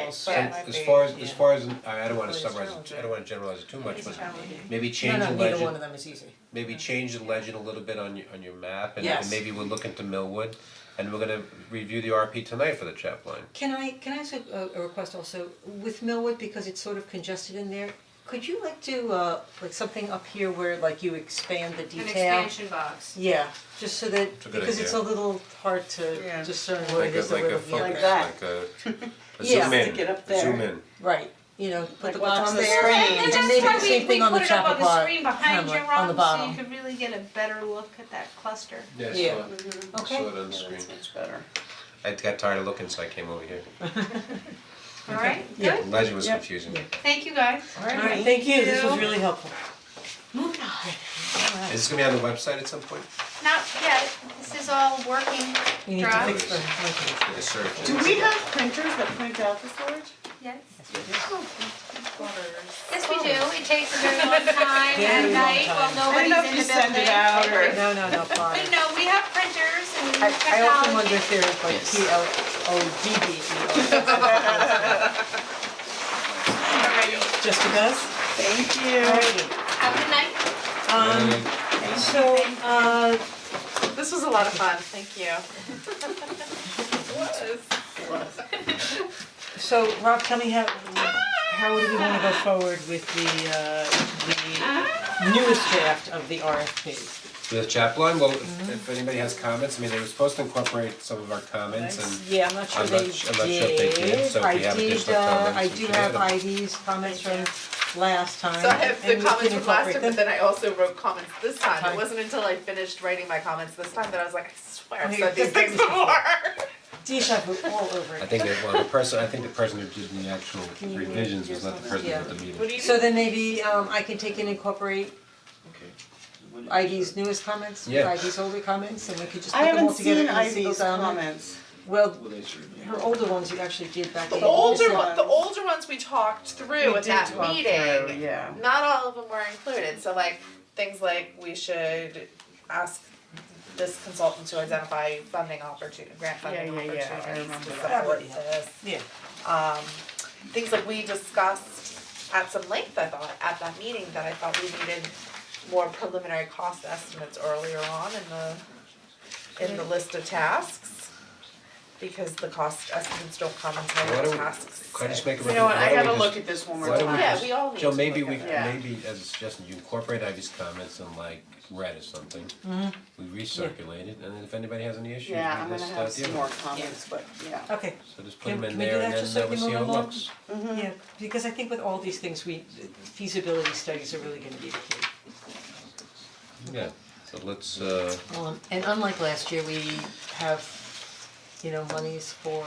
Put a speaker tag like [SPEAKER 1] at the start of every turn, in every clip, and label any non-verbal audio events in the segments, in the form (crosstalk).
[SPEAKER 1] It's
[SPEAKER 2] but
[SPEAKER 1] challenging.
[SPEAKER 3] As far as, as
[SPEAKER 2] Yeah.
[SPEAKER 3] far as, I I don't wanna
[SPEAKER 1] Well, it's
[SPEAKER 3] summarize, it,
[SPEAKER 1] challenging.
[SPEAKER 3] I don't wanna generalize it too much, but
[SPEAKER 2] challenging.
[SPEAKER 3] maybe
[SPEAKER 1] No,
[SPEAKER 3] change the
[SPEAKER 1] no,
[SPEAKER 3] legend.
[SPEAKER 1] neither one of them is easy.
[SPEAKER 3] Maybe change the legend a little bit on your, on your map and
[SPEAKER 1] Yes.
[SPEAKER 3] and maybe we'll look into Millwood and we're gonna review the RP tonight for the chap line.
[SPEAKER 4] Can I, can I ask a, a request also, with Millwood, because it's sort of congested in there, could you like do, uh, like something up here where like you expand the detail?
[SPEAKER 5] An expansion box.
[SPEAKER 4] Yeah, just so that,
[SPEAKER 3] a good
[SPEAKER 4] because it's a
[SPEAKER 3] idea.
[SPEAKER 4] little hard to
[SPEAKER 2] Yeah.
[SPEAKER 4] discern where it is that
[SPEAKER 3] Like
[SPEAKER 4] we're
[SPEAKER 3] a, like a
[SPEAKER 4] looking at.
[SPEAKER 3] focus,
[SPEAKER 2] that.
[SPEAKER 3] like a, a
[SPEAKER 4] Yeah.
[SPEAKER 3] zoom in,
[SPEAKER 2] Stick it up there.
[SPEAKER 3] zoom in.
[SPEAKER 4] Right, you know, put
[SPEAKER 2] Like
[SPEAKER 4] the
[SPEAKER 2] what's
[SPEAKER 4] box
[SPEAKER 2] on the
[SPEAKER 4] there,
[SPEAKER 2] screen.
[SPEAKER 4] and then they do the same thing on the
[SPEAKER 5] And that's why we, we put it up on
[SPEAKER 4] chocolate
[SPEAKER 5] the
[SPEAKER 4] bar,
[SPEAKER 5] screen behind you,
[SPEAKER 4] hamlet, on the
[SPEAKER 5] Rob, so you
[SPEAKER 4] bottom.
[SPEAKER 5] could really get a better look at that cluster.
[SPEAKER 3] Yeah,
[SPEAKER 4] Yeah.
[SPEAKER 3] I saw it, I
[SPEAKER 4] Okay.
[SPEAKER 3] saw it on the screen.
[SPEAKER 2] That's much better.
[SPEAKER 3] I got tired of looking, so I came over here.
[SPEAKER 5] Alright,
[SPEAKER 4] Yeah.
[SPEAKER 3] The
[SPEAKER 5] good,
[SPEAKER 3] Legend was
[SPEAKER 1] Yep.
[SPEAKER 3] confusing.
[SPEAKER 5] thank you guys.
[SPEAKER 4] Alright, thank you, this was
[SPEAKER 5] Thank you.
[SPEAKER 4] really helpful.
[SPEAKER 5] Moving on.
[SPEAKER 3] Is this gonna be on the website at some point?
[SPEAKER 5] Not yet, this is all working
[SPEAKER 4] We need to
[SPEAKER 5] Drive.
[SPEAKER 4] fix the linking.
[SPEAKER 3] Like a search.
[SPEAKER 2] Do we have printers that print out the storage?
[SPEAKER 5] Yes,
[SPEAKER 2] Butters.
[SPEAKER 5] yes we do, it takes a very long
[SPEAKER 4] (laughs)
[SPEAKER 5] time at
[SPEAKER 4] Very long
[SPEAKER 5] night while
[SPEAKER 4] time.
[SPEAKER 2] I don't know if you
[SPEAKER 5] nobody's in the building.
[SPEAKER 2] send it out or.
[SPEAKER 4] No,
[SPEAKER 5] (laughs)
[SPEAKER 4] no, no, fine.
[SPEAKER 5] But no, we have printers and
[SPEAKER 4] I
[SPEAKER 5] technology.
[SPEAKER 4] I often wonder if there's like P L O D D E
[SPEAKER 5] Alrighty,
[SPEAKER 4] O. Just because?
[SPEAKER 2] Thank
[SPEAKER 4] Alrighty,
[SPEAKER 5] have a good night.
[SPEAKER 4] um,
[SPEAKER 3] And-
[SPEAKER 4] so, uh,
[SPEAKER 6] This was a lot of fun, thank you.
[SPEAKER 4] so Rob, tell me how, how do we wanna go forward with the, uh, the newest draft of the RFP?
[SPEAKER 3] The chap line, well, if if anybody has comments, I mean, they were supposed to incorporate some of our comments and
[SPEAKER 4] Yeah, I'm not sure
[SPEAKER 3] I'm
[SPEAKER 4] they
[SPEAKER 3] not
[SPEAKER 4] did.
[SPEAKER 3] su- I'm not sure if they did, so if
[SPEAKER 4] I
[SPEAKER 3] we have
[SPEAKER 4] did,
[SPEAKER 3] additional
[SPEAKER 4] uh,
[SPEAKER 3] comments, we should add
[SPEAKER 4] I
[SPEAKER 3] them.
[SPEAKER 4] do have IDs, comments from last time,
[SPEAKER 6] So I have the
[SPEAKER 4] and we can
[SPEAKER 6] comments from last
[SPEAKER 4] incorporate
[SPEAKER 6] time,
[SPEAKER 4] them.
[SPEAKER 6] but then I also wrote comments this time.
[SPEAKER 4] Time.
[SPEAKER 6] It wasn't until I finished writing my comments this time that I was like, I swear I've
[SPEAKER 4] Okay,
[SPEAKER 6] said
[SPEAKER 2] (laughs)
[SPEAKER 6] these
[SPEAKER 4] good thing
[SPEAKER 6] things
[SPEAKER 4] this is-
[SPEAKER 6] before.
[SPEAKER 4] Deja vu all over
[SPEAKER 3] I
[SPEAKER 4] again.
[SPEAKER 3] think that, well, the person, I think the person who did the actual
[SPEAKER 4] you read
[SPEAKER 3] revisions was not the person who
[SPEAKER 4] yourself?
[SPEAKER 3] did the meeting.
[SPEAKER 6] What do you
[SPEAKER 4] So then maybe, um, I can take and incorporate ID's newest comments,
[SPEAKER 3] Yeah.
[SPEAKER 4] ID's older comments, and we could just
[SPEAKER 2] I
[SPEAKER 4] put them all
[SPEAKER 2] haven't
[SPEAKER 4] together
[SPEAKER 2] seen
[SPEAKER 4] and see
[SPEAKER 2] Ivy's
[SPEAKER 4] um,
[SPEAKER 2] comments.
[SPEAKER 4] Well, her older ones you actually did back in.
[SPEAKER 6] The older
[SPEAKER 4] December.
[SPEAKER 6] one, the older ones we talked through
[SPEAKER 2] We
[SPEAKER 6] at
[SPEAKER 2] did
[SPEAKER 6] that
[SPEAKER 2] talk
[SPEAKER 6] meeting.
[SPEAKER 2] through, yeah.
[SPEAKER 6] Not all of them were included, so like, things like we should ask this consultant to identify funding opportunity, grant funding
[SPEAKER 2] Yeah, yeah,
[SPEAKER 6] opportunities
[SPEAKER 2] yeah, I
[SPEAKER 6] to
[SPEAKER 2] remember that.
[SPEAKER 4] That would
[SPEAKER 6] support
[SPEAKER 4] be helpful.
[SPEAKER 6] this.
[SPEAKER 4] Yeah,
[SPEAKER 6] um, things like we discussed at some length, I thought, at that meeting, that I thought we needed more preliminary cost estimates earlier on in the, in the list of tasks. Because the cost estimates don't come
[SPEAKER 3] Why
[SPEAKER 6] until
[SPEAKER 3] don't
[SPEAKER 6] the
[SPEAKER 3] we-
[SPEAKER 6] tasks.
[SPEAKER 3] Could I just make a recommendation?
[SPEAKER 2] You know what, I gotta look at this one more
[SPEAKER 3] why don't we
[SPEAKER 2] time.
[SPEAKER 6] Yeah, we all need to
[SPEAKER 3] Joe,
[SPEAKER 6] look at.
[SPEAKER 3] maybe we,
[SPEAKER 6] it.
[SPEAKER 2] Yeah.
[SPEAKER 3] maybe as a suggestion, you incorporate Ivy's comments in like red or something. We recirculate it, and then if anybody has any issues, we
[SPEAKER 2] Yeah, I'm
[SPEAKER 3] can
[SPEAKER 2] gonna
[SPEAKER 3] start
[SPEAKER 2] have some
[SPEAKER 3] dealing
[SPEAKER 2] more
[SPEAKER 3] with
[SPEAKER 2] comments, but yeah.
[SPEAKER 4] okay,
[SPEAKER 3] it. So just put
[SPEAKER 4] Can-
[SPEAKER 3] them in
[SPEAKER 4] can we do
[SPEAKER 3] there and
[SPEAKER 4] that just
[SPEAKER 3] then
[SPEAKER 4] so
[SPEAKER 3] uh,
[SPEAKER 4] we
[SPEAKER 3] we'll see
[SPEAKER 4] move
[SPEAKER 3] how it looks.
[SPEAKER 4] along?
[SPEAKER 2] Hmm.
[SPEAKER 4] yeah, because I think with all these things, we, feasibility studies are really gonna be the key.
[SPEAKER 3] Yeah, so let's uh,
[SPEAKER 4] Um, and unlike last year, we have, you know, monies for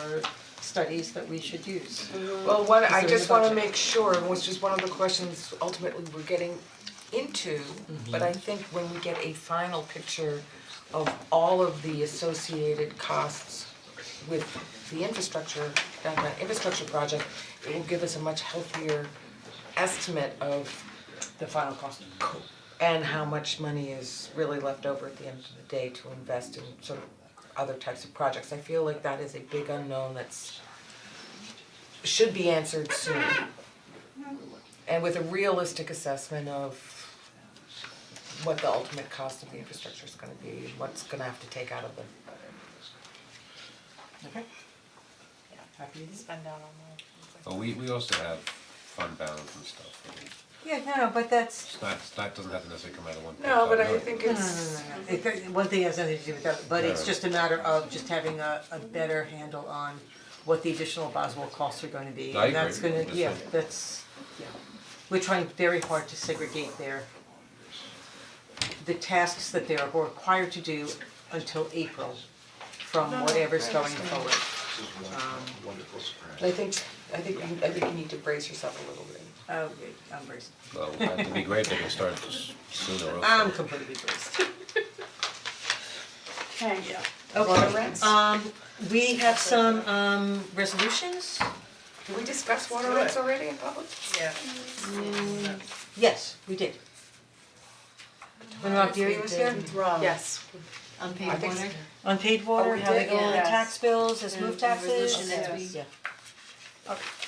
[SPEAKER 4] studies that we should use.
[SPEAKER 7] Well, what,
[SPEAKER 4] Is
[SPEAKER 7] I
[SPEAKER 4] there
[SPEAKER 7] just
[SPEAKER 4] any
[SPEAKER 7] wanna
[SPEAKER 4] budget?
[SPEAKER 7] make sure, which is one of the questions ultimately we're getting into,
[SPEAKER 4] Mm-hmm.
[SPEAKER 7] but I think when we get a final picture of all of the associated costs with the infrastructure, that, that infrastructure project, it will give us a much healthier estimate of
[SPEAKER 4] The final cost.
[SPEAKER 7] and how much money is really left over at the end of the day to invest in sort of other types of projects. I feel like that is a big unknown that's should be answered soon. And with a realistic assessment of what the ultimate cost of the infrastructure is gonna be, what's gonna have to take out of them.
[SPEAKER 4] Okay. Happy to do that.
[SPEAKER 6] Spend down on that.
[SPEAKER 3] Oh, we we also have fund balance and stuff.
[SPEAKER 4] Yeah, no, no, but that's,
[SPEAKER 3] It's not, it's not, doesn't have to necessarily come out of one.
[SPEAKER 7] No, but
[SPEAKER 3] pot,
[SPEAKER 7] I
[SPEAKER 3] really.
[SPEAKER 7] think
[SPEAKER 4] No, no,
[SPEAKER 7] it's,
[SPEAKER 4] no, no, it, that- one thing has nothing to do with that, but it's
[SPEAKER 3] Right.
[SPEAKER 4] just a matter of just having a, a better handle on what the additional Boswell costs are gonna be,
[SPEAKER 3] I
[SPEAKER 4] and that's
[SPEAKER 3] agree.
[SPEAKER 4] gonna, yeah,
[SPEAKER 3] Listen.
[SPEAKER 4] that's, yeah. We're trying very hard to segregate their, the tasks that they are required to do until April from whatever's going forward.
[SPEAKER 7] I think, I think, you- I think you need to brace yourself a little bit.
[SPEAKER 4] Oh, good, I'm braced,
[SPEAKER 3] Well, it'd be great if we can start s- sooner or
[SPEAKER 7] Um,
[SPEAKER 4] I'm completely braced.
[SPEAKER 2] Okay.
[SPEAKER 4] Okay, um, we have some, um, resolutions,
[SPEAKER 7] Did we discuss water rights already in public?
[SPEAKER 3] Oh.
[SPEAKER 6] Yeah.
[SPEAKER 4] yes, we did. When Rob Deary was here?
[SPEAKER 6] Yes.
[SPEAKER 5] Unpaid
[SPEAKER 7] I think so.
[SPEAKER 4] Unpaid water,
[SPEAKER 7] we
[SPEAKER 4] how they
[SPEAKER 7] did,
[SPEAKER 4] go on the
[SPEAKER 2] yes.
[SPEAKER 4] tax bills, as move taxes.
[SPEAKER 5] resolution as we-
[SPEAKER 4] Yeah.